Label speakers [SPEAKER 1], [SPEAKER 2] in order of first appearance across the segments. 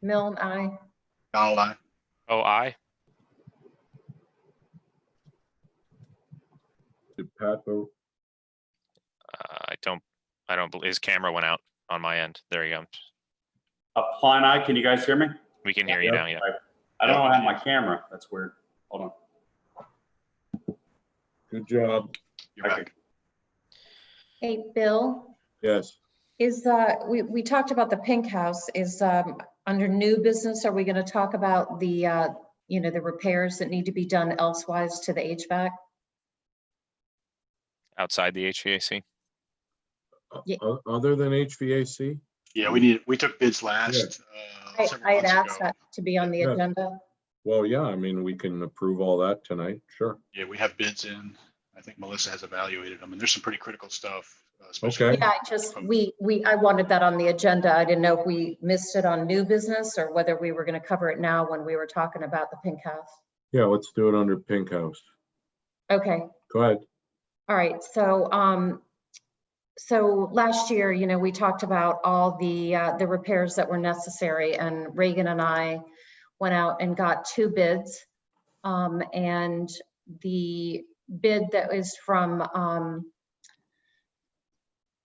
[SPEAKER 1] Milne, aye.
[SPEAKER 2] Donald, I.
[SPEAKER 3] Oh, I.
[SPEAKER 4] Did Pat vote?
[SPEAKER 3] Uh, I don't, I don't, bel- his camera went out on my end. There you go.
[SPEAKER 5] Uh, Paul and I, can you guys hear me?
[SPEAKER 3] We can hear you now, yeah.
[SPEAKER 5] I don't know how to have my camera. That's weird. Hold on.
[SPEAKER 4] Good job.
[SPEAKER 2] You're
[SPEAKER 5] Okay.
[SPEAKER 2] back.
[SPEAKER 1] Hey, Bill,
[SPEAKER 4] Yes.
[SPEAKER 1] is, uh, we, we talked about the pink house, is, um, under new business, are we gonna talk about the, uh, you know, the repairs that need to be done elsewise to the HVAC?
[SPEAKER 3] Outside the HVAC.
[SPEAKER 4] O-
[SPEAKER 1] Ye-
[SPEAKER 4] o- Other than HVAC?
[SPEAKER 2] Yeah, we need, we took bids last. uh,
[SPEAKER 1] I,
[SPEAKER 2] several
[SPEAKER 1] I had
[SPEAKER 2] months
[SPEAKER 1] asked
[SPEAKER 2] ago.
[SPEAKER 1] that to be on the
[SPEAKER 4] Yeah.
[SPEAKER 1] agenda.
[SPEAKER 4] Well, yeah, I mean, we can approve all that tonight, sure.
[SPEAKER 2] Yeah, we have bids in. I think Melissa has evaluated them and there's some pretty critical stuff. uh, especially-
[SPEAKER 4] Okay.
[SPEAKER 1] Yeah, I just, we, we, I wanted that on the agenda. I didn't know if we missed it on new business or whether we were gonna cover it now when we were talking about the pink house.
[SPEAKER 4] Yeah, let's do it under Pink House.
[SPEAKER 1] Okay,
[SPEAKER 4] Go ahead.
[SPEAKER 1] All right, so, um, so last year, you know, we talked about all the, uh, the repairs that were necessary and Reagan and I went out and got two bids. Um, and the bid that is from, um,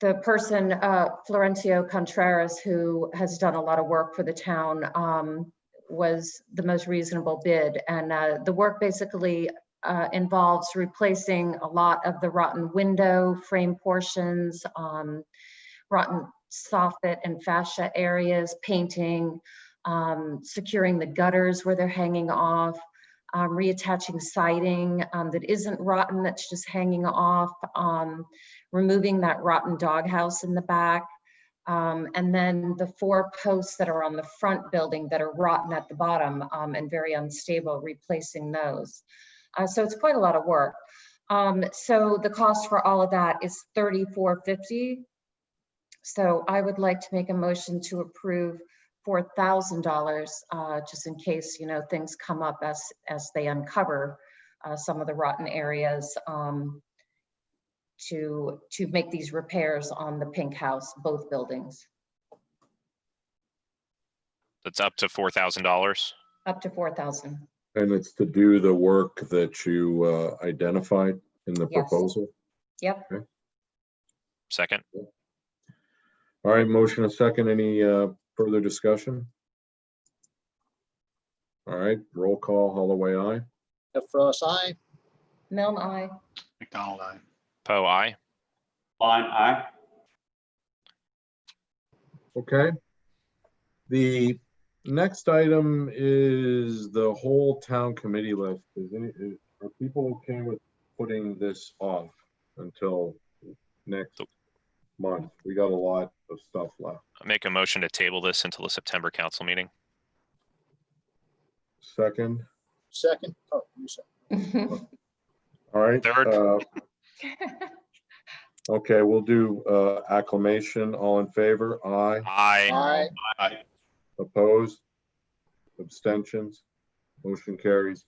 [SPEAKER 1] the person, uh, Florencio Contreras, who has done a lot of work for the town, um, was the most reasonable bid. And, uh, the work basically uh, involves replacing a lot of the rotten window frame portions, um, rotten soffit and fascia areas, painting, um, securing the gutters where they're hanging off, um, reattaching siding um, that isn't rotten, that's just hanging off, um, removing that rotten doghouse in the back. Um, and then the four posts that are on the front building that are rotten at the bottom um, and very unstable, replacing those. Uh, so it's quite a lot of work. Um, so the cost for all of that is thirty-four fifty. So I would like to make a motion to approve four thousand dollars, uh, just in case, you know, things come up as, as they uncover uh, some of the rotten areas, um, to, to make these repairs on the pink house, both buildings,
[SPEAKER 3] That's up to four thousand dollars.
[SPEAKER 1] up to four thousand.
[SPEAKER 4] And it's to do the work that you uh, identified in the
[SPEAKER 1] Yes.
[SPEAKER 4] proposal?
[SPEAKER 1] Yep.
[SPEAKER 3] Second,
[SPEAKER 4] All right, motion a second. Any uh, further discussion? All right, roll call, Holloway, aye.
[SPEAKER 6] Jeff Frost, aye.
[SPEAKER 1] Milne, I,
[SPEAKER 2] McDonald, I.
[SPEAKER 3] Poe, I.
[SPEAKER 5] Line I.
[SPEAKER 4] Okay. The next item is the whole town committee list. Is any, is- are people okay with putting this off until next month? We got a lot of stuff left.
[SPEAKER 3] Make a motion to table this until the September council meeting.
[SPEAKER 4] Second,
[SPEAKER 6] Second, oh, you said,
[SPEAKER 4] all right.
[SPEAKER 3] Third.
[SPEAKER 4] uh, Okay, we'll do uh, acclamation. All in favor? Aye.
[SPEAKER 3] I.
[SPEAKER 6] aye.
[SPEAKER 4] Opposed? Abstentions? Motion carries.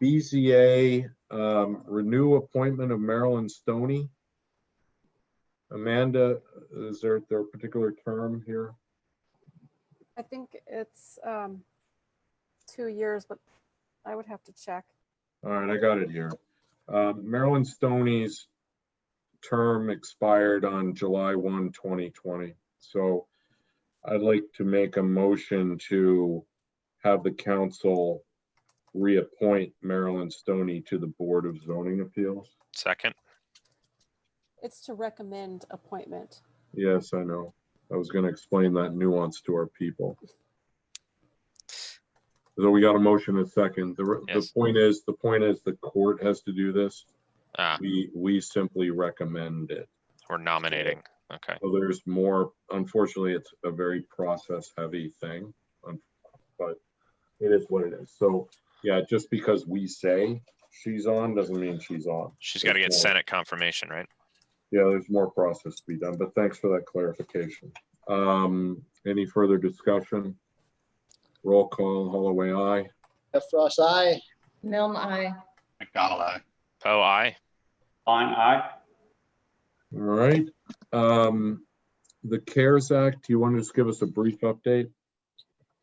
[SPEAKER 4] BZA, um, renew appointment of Marilyn Stoney. Amanda, is there, there a particular term here?
[SPEAKER 7] I think it's um two years, but I would have to check.
[SPEAKER 4] All right, I got it here. Um, Marilyn Stoney's term expired on July 1, 2020. So I'd like to make a motion to have the council reappoint Marilyn Stoney to the Board of Zoning Appeals.
[SPEAKER 3] Second,
[SPEAKER 7] It's to recommend appointment.
[SPEAKER 4] Yes, I know. I was going to explain that nuance to our people. So we got a motion in a second. The, re- the
[SPEAKER 3] Yes.
[SPEAKER 4] point is, the point is the court has to do this.
[SPEAKER 3] ah,
[SPEAKER 4] We, we simply recommend it.
[SPEAKER 3] we're nominating. Okay,
[SPEAKER 4] So there's more, unfortunately, it's a very process heavy thing. um, But it is what it is. So, yeah, just because we say she's on doesn't mean she's on.
[SPEAKER 3] she's got to get
[SPEAKER 4] There's more-
[SPEAKER 3] Senate confirmation, right?
[SPEAKER 4] Yeah, there's more process to be done, but thanks for that clarification. Um, any further discussion? Roll call, Holloway, aye.
[SPEAKER 6] Jeff Frost, aye.
[SPEAKER 1] Milne, I.
[SPEAKER 2] McDonald, I.
[SPEAKER 3] Poe, I.
[SPEAKER 5] Line I.
[SPEAKER 4] All right. Um, the CARES Act, do you want to just give us a brief update?